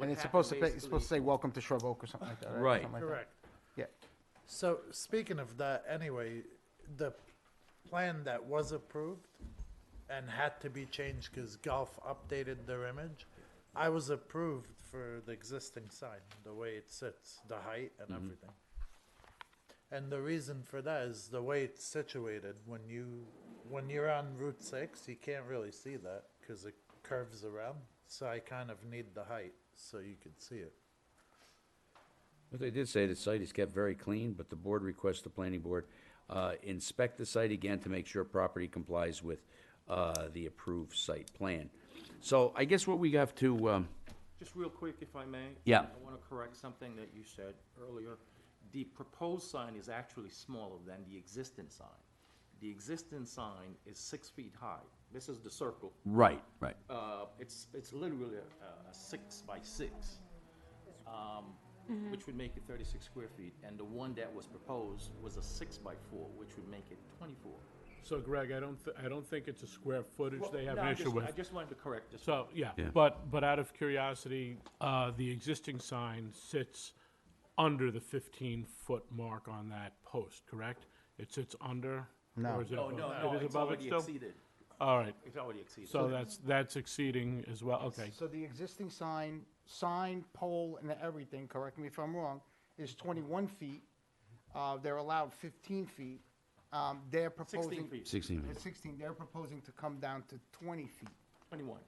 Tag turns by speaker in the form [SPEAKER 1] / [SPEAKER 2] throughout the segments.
[SPEAKER 1] And it's
[SPEAKER 2] happened
[SPEAKER 1] supposed to, be- it's supposed to
[SPEAKER 2] basically-
[SPEAKER 1] say, welcome to Shrub Oak or something like that, right? Or
[SPEAKER 3] Right.
[SPEAKER 1] something like that.
[SPEAKER 2] Correct.
[SPEAKER 1] Yeah,
[SPEAKER 4] So speaking of that, anyway, the plan that was approved and had to be changed because golf updated their image, I was approved for the existing sign, the way it sits, the height and everything. And the reason for that is the way it's situated, when you, when you're on Route six, you can't really see that because it curves around. So I kind of need the height so you could see it.
[SPEAKER 3] But they did say the site is kept very clean, but the board requests the planning board uh, inspect the site again to make sure property complies with uh, the approved site plan. So I guess what we have to, um,
[SPEAKER 2] Just real quick, if I may.
[SPEAKER 3] Yeah.
[SPEAKER 2] I want to correct something that you said earlier. The proposed sign is actually smaller than the existing sign. The existing sign is six feet high. This is the circle.
[SPEAKER 3] right, right.
[SPEAKER 2] Uh, It's, it's literally uh, a- a six by six, um, which would make it 36 square feet. And the one that was proposed was a six by four, which would make it 24.
[SPEAKER 5] So Greg, I don't, thi- I don't think it's a square footage they have
[SPEAKER 2] No,
[SPEAKER 5] an
[SPEAKER 2] I
[SPEAKER 5] issue
[SPEAKER 2] just-
[SPEAKER 5] with.
[SPEAKER 2] I just wanted to correct this.
[SPEAKER 5] So, yeah, but, but out of curiosity, uh, the existing sign sits under the fifteen-foot mark on that post, correct? It sits under?
[SPEAKER 2] No,
[SPEAKER 5] No.
[SPEAKER 2] Oh, no, no, it's already exceeded.
[SPEAKER 5] All right,
[SPEAKER 2] It's already exceeded.
[SPEAKER 5] so that's, that's exceeding as well, okay.
[SPEAKER 1] so the existing sign, sign, pole, and everything, correct me if I'm wrong, is twenty-one feet. Uh, they're allowed fifteen feet. Um, they're proposing.
[SPEAKER 2] 16 feet,
[SPEAKER 3] Sixteen.
[SPEAKER 1] They're sixteen, they're proposing to come down to twenty feet,
[SPEAKER 2] 21.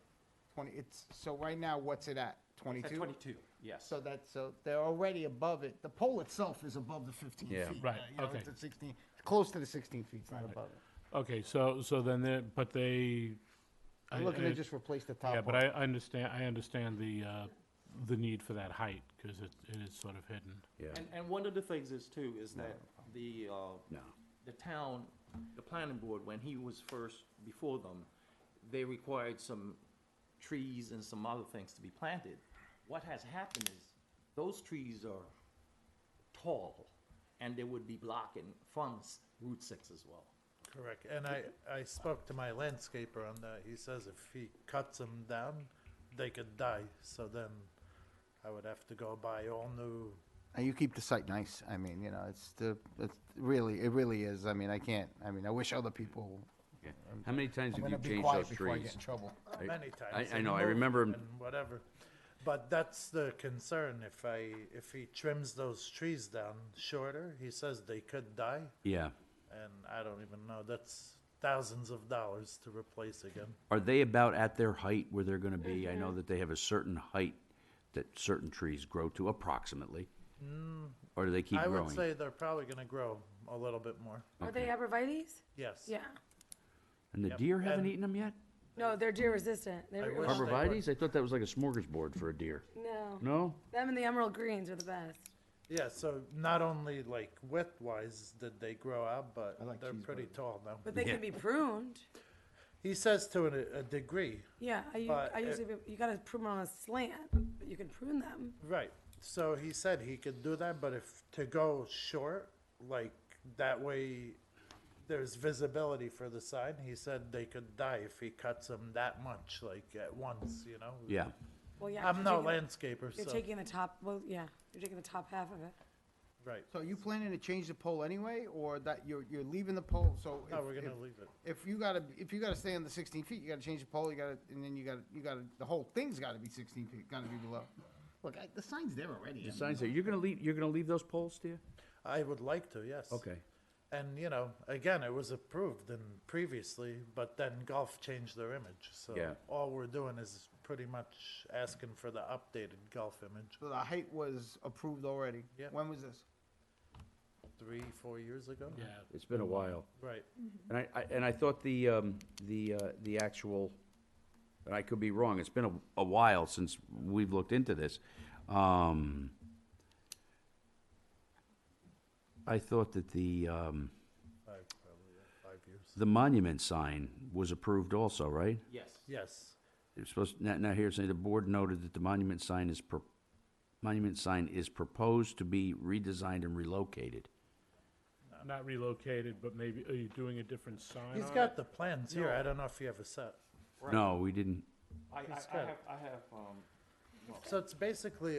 [SPEAKER 1] twenty, it's, so right now, what's it at,
[SPEAKER 2] It's at
[SPEAKER 1] twenty-two?
[SPEAKER 2] 22, yes.
[SPEAKER 1] So that's, so they're already above it, the pole itself is above the fifteen feet.
[SPEAKER 3] Yeah.
[SPEAKER 5] Right,
[SPEAKER 1] uh, you know,
[SPEAKER 5] okay.
[SPEAKER 1] It's at sixteen, it's close to the sixteen feet, it's not above it.
[SPEAKER 5] Okay, so, so then, they're- but they. I-
[SPEAKER 1] I'm looking to
[SPEAKER 5] I-
[SPEAKER 1] just replace the top
[SPEAKER 5] Yeah,
[SPEAKER 1] part.
[SPEAKER 5] but I I understand, I understand the, uh, the need for that height, because it, it is sort of hidden.
[SPEAKER 3] Yeah,
[SPEAKER 2] And, and one of the things is too, is that the, uh,
[SPEAKER 3] No.
[SPEAKER 2] the town, the planning board, when he was first before them, they required some trees and some other things to be planted. What has happened is, those trees are tall, and they would be blocking from s- Route Six as well.
[SPEAKER 4] Correct, and I, I spoke to my landscaper on that, he says if he cuts them down, they could die, so then I would have to go buy all new,
[SPEAKER 1] And you keep the site nice. I mean, you know, it's the, it's really, it really is. I mean, I can't, I mean, I wish other people.
[SPEAKER 3] okay. How many times
[SPEAKER 1] I'm
[SPEAKER 3] have
[SPEAKER 1] gonna
[SPEAKER 3] you
[SPEAKER 1] be
[SPEAKER 3] changed those
[SPEAKER 1] quiet before I get
[SPEAKER 3] trees?
[SPEAKER 1] in trouble.
[SPEAKER 3] I-
[SPEAKER 4] many
[SPEAKER 3] I-
[SPEAKER 4] times.
[SPEAKER 3] I
[SPEAKER 4] and
[SPEAKER 3] know, I
[SPEAKER 4] mowed
[SPEAKER 3] remember 'em-
[SPEAKER 4] And whatever, but that's the concern, if I, if he trims those trees down shorter, he says they could die,
[SPEAKER 3] Yeah.
[SPEAKER 4] and I don't even know, that's thousands of dollars to replace again.
[SPEAKER 3] Are they about at their height where they're gonna be? I know that they have a certain height that certain trees grow to approximately. Or do they keep
[SPEAKER 4] I
[SPEAKER 3] growing?
[SPEAKER 4] would say they're probably gonna grow a little bit more,
[SPEAKER 6] Are they arborvites?
[SPEAKER 4] yes.
[SPEAKER 6] Yeah.
[SPEAKER 3] And the
[SPEAKER 4] Yep,
[SPEAKER 3] deer haven't
[SPEAKER 4] and-
[SPEAKER 3] eaten them yet?
[SPEAKER 6] No, they're deer resistant. They're,
[SPEAKER 4] wish-
[SPEAKER 6] well,
[SPEAKER 4] Arbor-
[SPEAKER 3] Arborvitae's? I thought that was like a smorgasbord for a deer.
[SPEAKER 6] no.
[SPEAKER 3] No?
[SPEAKER 6] Them and the emerald greens are the best.
[SPEAKER 4] Yeah, so not only like width wise did they grow out, but they're pretty tall now.
[SPEAKER 6] But they can be pruned.
[SPEAKER 4] He says to a, a degree,
[SPEAKER 6] Yeah, I, u-
[SPEAKER 4] But
[SPEAKER 6] I
[SPEAKER 4] it-
[SPEAKER 6] usually, you gotta prune them on a slant, but you can prune them.
[SPEAKER 4] right? So he said he could do that, but if to go short, like that way, there's visibility for the sign. He said they could die if he cuts them that much, like at once, you know.
[SPEAKER 3] Yeah.
[SPEAKER 6] Well, yeah. 'cause
[SPEAKER 4] I'm no
[SPEAKER 6] you're taking-
[SPEAKER 4] landscaper,
[SPEAKER 6] You're
[SPEAKER 4] so
[SPEAKER 6] taking the top, well, yeah, you're taking the top half of it.
[SPEAKER 4] right.
[SPEAKER 1] So are you planning to change the pole anyway, or that you're, you're leaving the pole? So
[SPEAKER 4] No,
[SPEAKER 1] if-
[SPEAKER 4] Oh, we're gonna
[SPEAKER 1] if-
[SPEAKER 4] leave it.
[SPEAKER 1] If you gotta, if you gotta stay on the sixteen feet, you gotta change the pole, you gotta, and then you gotta, you gotta, the whole thing's gotta be sixteen feet, gotta be below. Look, I- the sign's there already. I mean,
[SPEAKER 3] The signs there, you're gonna leave, you're gonna leave those poles, dear?
[SPEAKER 4] I would like to, yes.
[SPEAKER 3] Okay.
[SPEAKER 4] And you know, again, it was approved and previously, but then golf changed their image. So
[SPEAKER 3] Yeah.
[SPEAKER 4] all we're doing is pretty much asking for the updated golf image.
[SPEAKER 1] So the height was approved already.
[SPEAKER 4] Yeah.
[SPEAKER 1] When was this?
[SPEAKER 4] Three, four years ago.
[SPEAKER 5] Yeah,
[SPEAKER 3] It's been a while.
[SPEAKER 4] Right.
[SPEAKER 3] And I, I, and I thought the, um, the, uh, the actual, and I could be wrong, it's been a, a while since we've looked into this. Um, I thought that the, um,
[SPEAKER 4] Five, probably yeah, five years.
[SPEAKER 3] the monument sign was approved also, right?
[SPEAKER 2] Yes.
[SPEAKER 4] Yes.
[SPEAKER 3] It's supposed, now, now here's, the board noted that the monument sign is, pro- monument sign is proposed to be redesigned and relocated.
[SPEAKER 5] Not relocated, but maybe, are you doing a different sign
[SPEAKER 4] He's
[SPEAKER 5] on it?
[SPEAKER 4] got the plans here. I don't know if you have a set.
[SPEAKER 3] No, we didn't,
[SPEAKER 2] I, I, I
[SPEAKER 4] good.
[SPEAKER 2] have, I have, um,
[SPEAKER 4] So it's basically